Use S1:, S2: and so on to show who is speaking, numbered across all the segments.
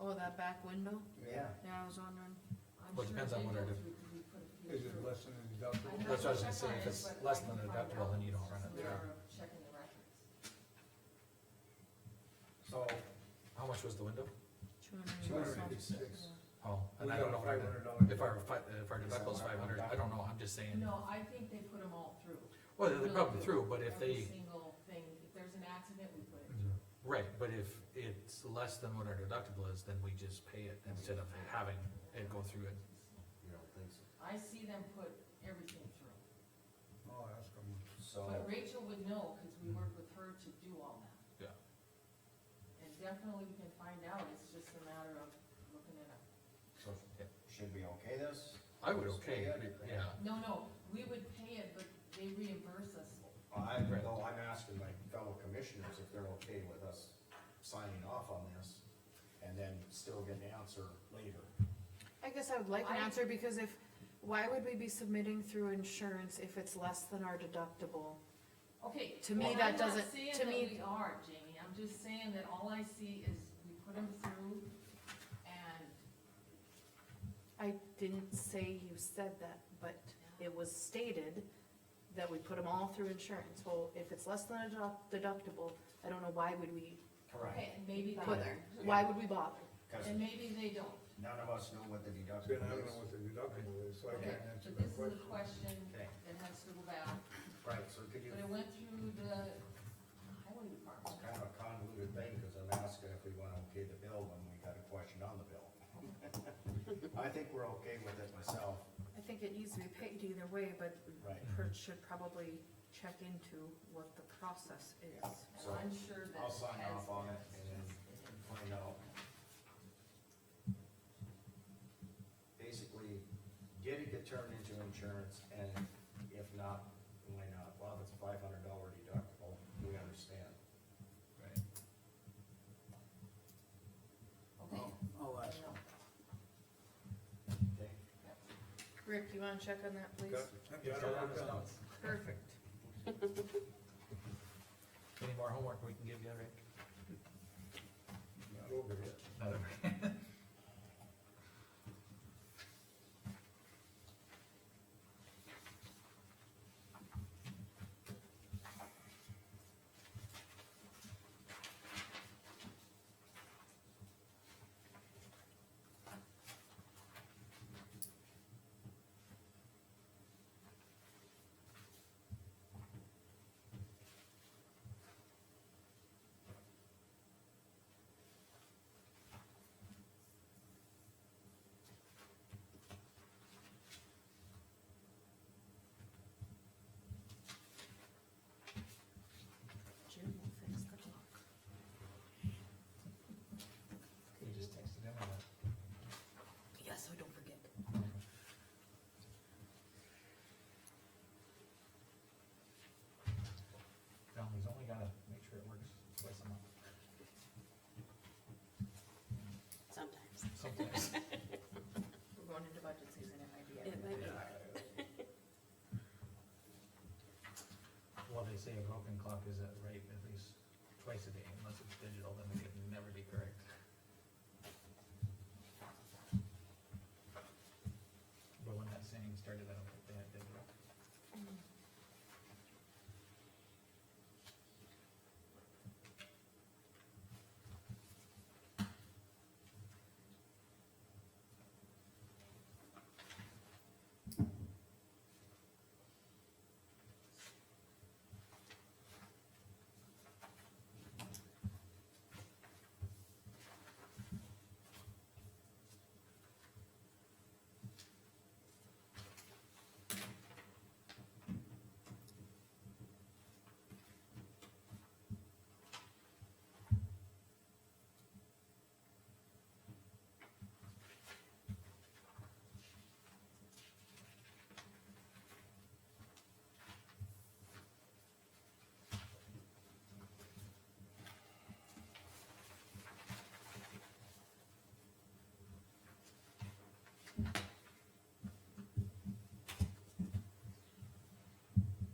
S1: Oh, that back window?
S2: Yeah.
S1: Yeah, I was wondering.
S3: Well, it depends on what I do.
S2: Is it less than a deductible?
S3: That's what I was gonna say, if it's less than a deductible, then you don't run it through.
S4: Checking the records.
S2: So,
S3: How much was the window?
S2: two hundred and
S1: 286.
S2: eighty-six.
S3: Oh,
S2: We
S3: and
S2: got
S3: I don't
S2: a
S3: know.
S2: five
S3: what
S2: hundred
S3: it-
S2: dollar.
S3: If our, fi- if our deductible's five hundred, I don't know, I'm just saying,
S4: No, I think they put them all through.
S3: well, they're probably through, but if
S4: Every
S3: they, Mm-hmm.
S4: single thing, if there's an accident, we put it.
S3: right, but if it's less than what our deductible is, then we just pay it instead of having it go through it.
S5: You don't think so?
S4: I see them put everything through.
S2: Oh, that's coming.
S5: So,
S4: But Rachel would know, cause
S3: Mm-hmm.
S4: we work with her to do all that.
S3: Yeah.
S4: And definitely we can find out, it's just a matter of looking it up.
S5: so should we okay this?
S3: I would okay, it, yeah,
S4: No, no, we would pay it, but they reimburse us.
S5: I,
S3: Right.
S5: no, I'm asking my fellow commissioners if they're okay with us signing off on this and then still get an answer later.
S1: I guess I would like an
S4: I-
S1: answer, because if, why would we be submitting through insurance if it's less than our deductible?
S4: Okay.
S1: To me,
S4: and
S1: that
S4: I'm not
S1: doesn't-
S4: saying
S1: to
S4: that
S1: me-
S4: We are, Jamie, I'm just saying that all I see is we put them through and
S1: I didn't say you said that, but it was stated that we put them all through insurance. Well, if it's less than a deduct- deductible, I don't know why would we
S5: Correct.
S4: Okay, and maybe they
S1: put,
S4: don't,
S1: why would we bother?
S5: Cause
S4: and maybe they don't.
S5: none of us know what the
S2: Then I
S5: deductible
S2: don't
S5: is.
S2: know what the deductible is, so I
S4: Okay,
S2: can't answer
S4: but
S2: that
S4: this is
S2: question.
S4: a question
S5: Okay.
S4: that has to go back,
S5: Right, so could you,
S4: but it went through the highway
S5: it's
S4: department.
S5: kind of a convoluted thing, cause I'm asking if we wanna okay the bill when we got a question on the bill. I think we're okay with it myself,
S1: I think it needs to be paid either way, but
S5: right,
S1: Kurt should probably check into what the process is.
S4: And
S5: so
S4: I'm sure that.
S5: I'll sign
S4: has-
S5: off on it and then find out. Basically, did it get turned into insurance, and if not, why not? Well, if it's five hundred dollar deductible, we understand.
S3: right,
S4: Okay.
S2: I'll ask.
S4: No,
S5: Oh. Okay?
S1: Rick, you wanna check on that, please?
S2: Yeah, I don't work that out.
S1: Perfect.
S3: any more homework we can give you, Rick?
S2: Not over yet.
S3: Not over.
S1: Jim will fix the clock.
S3: You just texted him on that.
S1: Yes, so don't forget.
S3: No, he's only gotta make sure it works twice a month.
S6: Sometimes.
S3: Sometimes.
S1: We're going into budget season, it might be.
S6: It might be.
S3: Well, they say a broken clock is at rate at least twice a day, unless it's digital, then it can never be correct. But when that saying started, I don't think they had digital.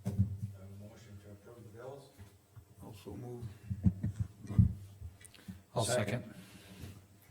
S5: A motion to approve the bills?
S2: Also move.
S3: I'll second.